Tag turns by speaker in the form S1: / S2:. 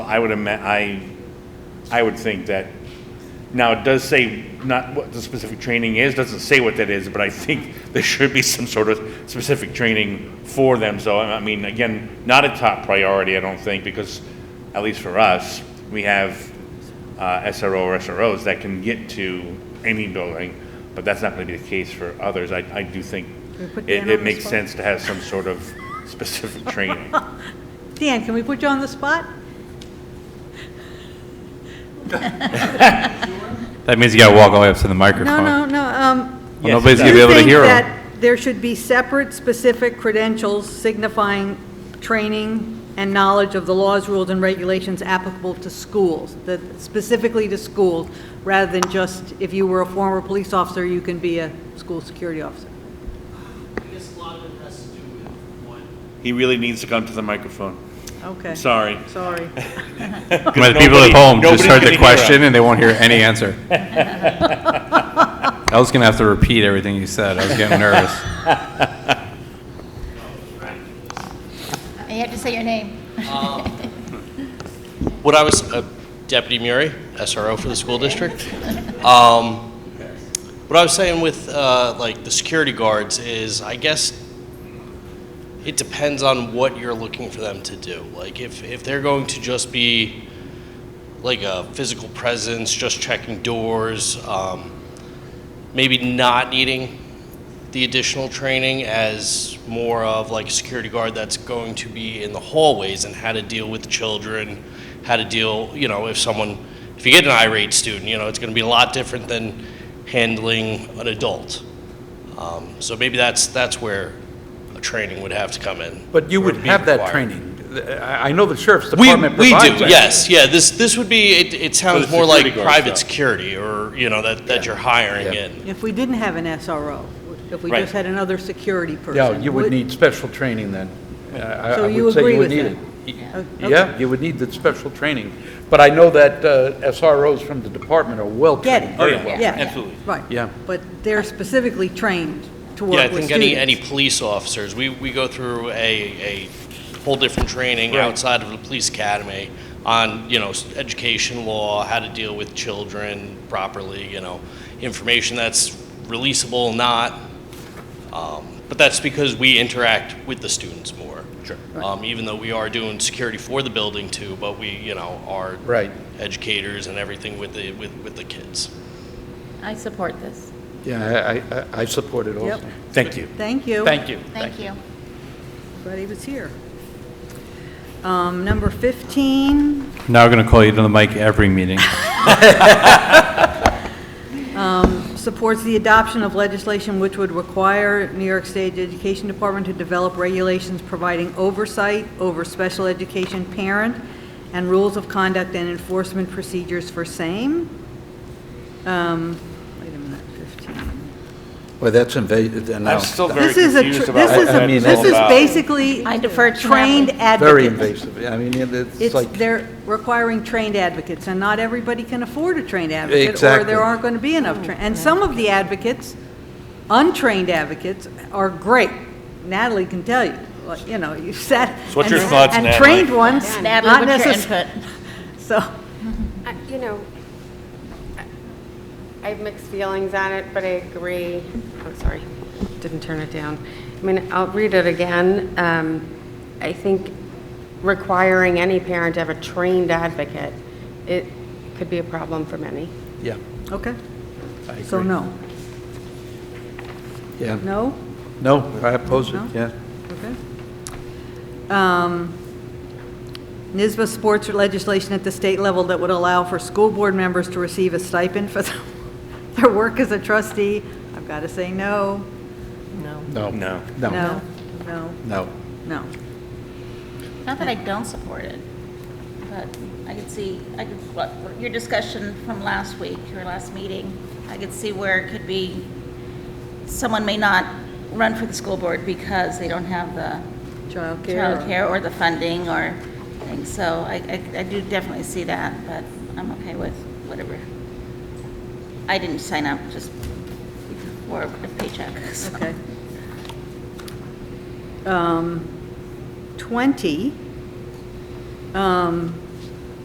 S1: I would ama, I, I would think that, now it does say not what the specific training is, doesn't say what that is, but I think there should be some sort of specific training for them, so, I I mean, again, not a top priority, I don't think, because, at least for us, we have, uh, SRO or SROs that can get to any building, but that's not gonna be the case for others, I, I do think
S2: Can we put Dan
S1: it,
S2: on
S1: it
S2: the
S1: makes
S2: spot?
S1: sense to have some sort of specific training.
S2: Dan, can we put you on the spot?
S3: That means you gotta walk all the way up to the microphone.
S2: No, no, no, um.
S3: Well, nobody's gonna
S2: do
S3: be
S2: you
S3: able to
S2: think
S3: hear
S2: that
S3: them.
S2: There should be separate specific credentials signifying training and knowledge of the laws, rules, and regulations applicable to schools, that specifically to schools, rather than just if you were a former police officer, you can be a school security officer.
S4: I guess a lot of it has to do with one,
S1: He really needs to come to the microphone.
S2: Okay.
S1: Sorry.
S2: Sorry.
S3: But the people at home just
S1: nobody
S3: heard
S1: can
S3: the
S1: hear
S3: question and they won't hear any answer. I was gonna have to repeat everything you said. I was getting nervous.
S5: You have to say your name. Oh.
S4: What I was, uh, Deputy Murray, SRO for the school district. Um, What I was saying with, uh, like, the security guards is, I guess, it depends on what you're looking for them to do. Like, if, if they're going to just be, like, a physical presence, just checking doors, um, maybe not needing the additional training as more of like a security guard that's going to be in the hallways and how to deal with children, how to deal, you know, if someone, if you get an irate student, you know, it's going to be a lot different than handling an adult. Um, so maybe that's that's where a training would have to come in.
S6: But you
S4: or
S6: would
S4: be
S6: have that
S4: required.
S6: training. I I know the sheriff's
S4: We,
S6: department
S4: we
S6: provides
S4: do,
S6: that.
S4: yes, yeah, this, this would be, it, it sounds
S1: the
S4: more like
S1: security guard
S4: private
S1: stuff.
S4: security or, you know, that, that you're hiring
S6: Yeah.
S4: in.
S2: If we didn't have an SRO, if we
S1: Right.
S2: just had another security person.
S6: Yeah, you would need special training then. I- I-
S2: So
S6: I
S2: you
S6: would say
S2: agree
S6: would
S2: with
S6: need
S2: that?
S6: it. Y-
S2: Yeah.
S6: Yeah, you would need the special training. But I know that uh, SROs from the department are
S2: Get
S6: well-trained.
S2: it.
S1: Oh, yeah.
S2: Yeah.
S1: Absolutely.
S2: Right.
S6: Yeah.
S2: But they're specifically trained to
S4: Yeah, I
S2: work with students.
S4: think any, any police officers, we, we go through a, a whole different training
S1: Right.
S4: outside of the police academy on, you know, s- education law, how to deal with children properly, you know, information that's releasable, not. Um, But that's because we interact with the students more. Sure. Um, even though we are doing security for the building too, but we, you know, are.
S6: Right.
S4: Educators and everything with the, with, with the kids.
S5: I support this.
S6: Yeah, I- I- I I support it
S2: Yep.
S6: also.
S1: Thank you.
S2: Thank you.
S6: Thank you.
S5: Thank you.
S2: Glad he was here. Um, Number 15,
S3: Now we're gonna call you to the mic every meeting.
S2: supports the adoption of legislation which would require New York State Education Department to develop regulations providing oversight over special education parent and rules of conduct and enforcement procedures for same. Um, Wait a minute, 15.
S6: Well, that's invasive. uh,
S1: I'm still very
S2: This is a,
S1: confused
S2: tr-
S1: about
S2: this
S1: what
S2: is,
S1: that
S2: a-
S1: is
S6: mean,
S2: this
S1: all
S2: is
S1: about.
S2: basically
S5: I defer to
S2: trained advocates.
S6: Very invasive. I mean, it- it's
S2: It's,
S6: like,
S2: they're requiring trained advocates, and not everybody can afford a trained advocate. Or
S6: Exactly.
S2: there aren't going to be enough, tra- and some of the advocates, untrained advocates, are great. Natalie can tell you, like, you know, you sat.
S1: So what's
S2: and-
S1: your thoughts,
S2: And
S1: Natalie?
S2: trained ones,
S5: Natalie,
S2: not
S5: what's your
S2: necessarily.
S5: input?
S2: So,
S7: I- You know, I- I have mixed feelings on it, but I agree. I'm sorry, didn't turn it down. I mean, I'll read it again. Um, I think requiring any parent to have a trained advocate, it could be a problem for many.
S6: yeah,
S2: okay,
S6: I agree.
S2: so no.
S6: Yeah.
S2: No?
S6: No, I oppose it,
S2: No?
S6: yeah.
S2: Okay. Um, NISBA supports legislation at the state level that would allow for school board members to receive a stipend for their work as a trustee. I've got to say no,
S6: No.
S1: No.
S6: No,
S2: no, no,
S6: no.
S2: no.
S5: Not that I don't support it, but I could see, I could, what- your discussion from last week, your last meeting, I could see where it could be, someone may not run for the school board because they don't have the
S2: Childcare.
S5: childcare or the funding or things, so I, I- I do definitely see that, but I'm okay with whatever. I didn't sign up just for a paycheck, so.
S2: Okay. Um, 20, um,